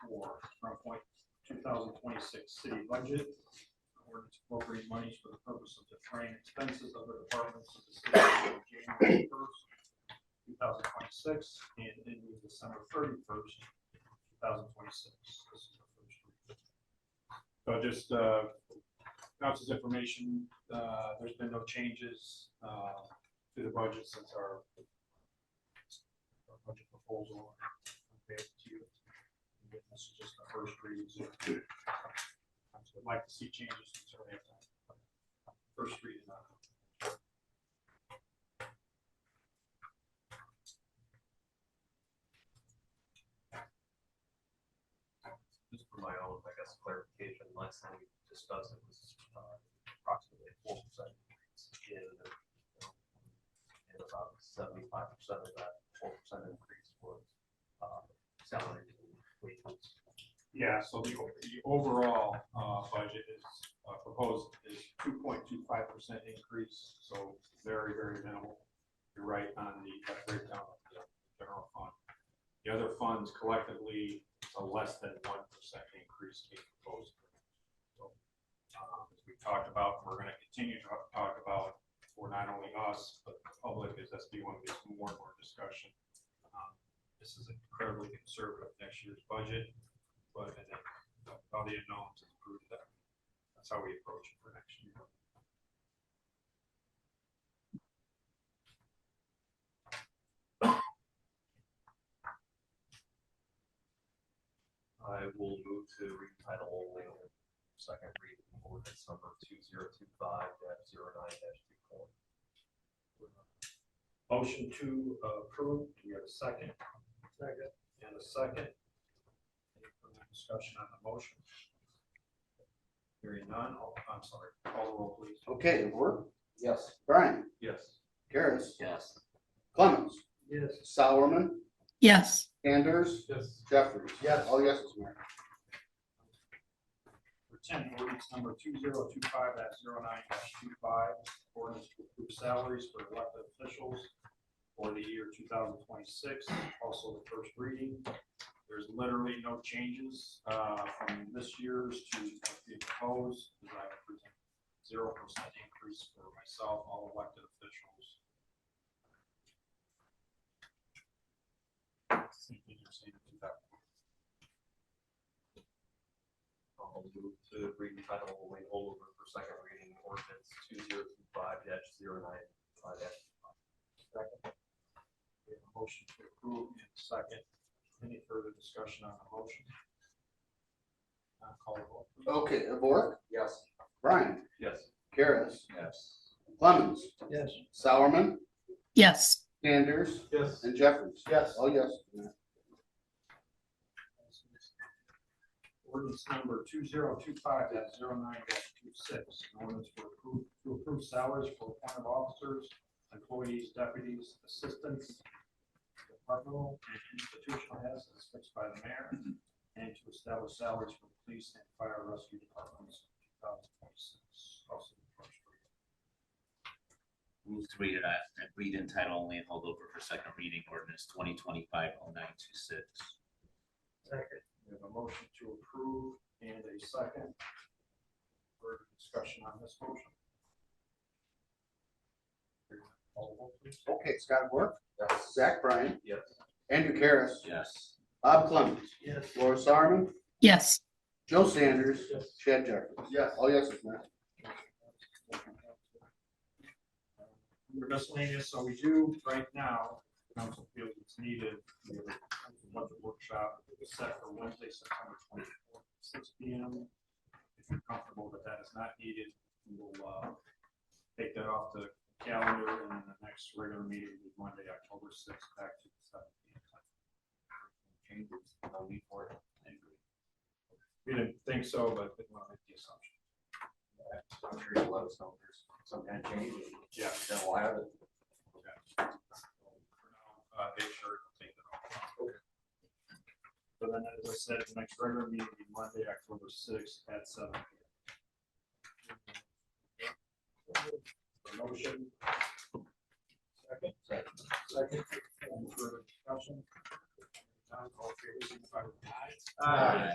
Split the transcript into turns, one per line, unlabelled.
four, from point two thousand twenty-six city budget. Or appropriate monies for the purpose of defraying expenses of the departments of the city on January first, two thousand twenty-six, and ending December thirty-first, two thousand twenty-six. So just, uh, council's information, uh, there's been no changes, uh, to the budget since our our budget proposal. Okay, to you. This is just the first reading. so I'd like to see changes since our last time. First reading. uh,
just for my own, I guess, clarification, last time we discussed it was uh, approximately four percent increase in um, and about seventy-five percent of that four percent increase was uh, salary and wages.
Yeah, so the, o- the overall, uh, budget is, uh, proposed is two point two five percent increase, so very, very minimal. You're right on the uh, breakdown of the general fund. The other funds collectively, a less than one percent increase being proposed. So, um, as we talked about, we're gonna continue to talk about, for not only us, but the public, is SB one gets more and more discussion. Um, This is incredibly conservative next year's budget but and then all the unknowns is proof that that's how we approach it for next year.
I will move to read title only, on second reading, ordinance number two zero two five dash zero nine dash two four.
Motion to uh, approve, do we have a second? Second. And a second. Any further discussion on the motion? Hearing none, all, I'm sorry, call the roll please.
Okay, Work.
Yes.
Brian,
Yes.
Karis,
Yes.
Clemens,
Yes.
Solomon,
yes,
Anders,
Yes.
Jeffries.
Yes.
All yeses, Mayor.
For ten, ordinance number two zero two five dash zero nine dash two five, ordinance to approve salaries for elected officials for the year two thousand twenty-six, also the first reading. There's literally no changes, uh, from this year's to the proposed, as I present zero percent increase for myself, all elected officials. Same thing you're seeing in 2000.
I'll move to read title only, hold over for second reading, ordinance two zero two five dash zero nine five dash
Second. We have a motion to approve in second. Any further discussion on the motion? Uh, Call the roll. please.
Okay, Work.
Yes.
Brian,
Yes.
Karis,
Yes.
Clemens,
Yes.
Solomon,
yes,
Anders,
Yes.
and Jeffries.
Yes.
All yeses, Mayor.
Ordinance number two zero two five 9 two six, an ordinance to approve, to approve salaries for appointed officers, employees, deputies, assistants, departmental and institutional heads as fixed by the mayor, and to establish salaries for police and fire rescue departments in two thousand twenty-six. Also, the first reading.
Move to read it, uh, read in title only and hold over for second reading ordinance twenty twenty-five oh nine two six.
We have a motion to approve and a second. Further discussion on this motion? Call the roll, please.
Okay, Scott Work,
Yes.
Zach Bryan,
Yes.
Andrew Karis,
Yes.
Bob Clemens,
Yes.
Laura Sarman,
yes,
Joe Sanders,
Yes.
Chad Jeffries. Yes. All yeses, Mayor.
Under miscellaneous, so we do right now, council feels it's needed, we have a budget workshop set for Wednesday, September twenty-fourth, six P M. If you're comfortable that that is not needed, we'll, uh, take that off the calendar and then the next regular meeting will be Monday, October sixth, back to the seven P M.
Changes, no need for it. I agree.
We didn't think so, but didn't want to make the assumption.
I'm sure you'll let us know if there's some kind of change,
Yeah.
then we'll have it.
Okay. Uh, Big Sur, I'll take that off. So then, as I said, the next regular meeting will be Monday, October sixth at seven. p.m. Motion. Second. Second. Any further discussion? None, all in favor, signify with an aye.
Aye.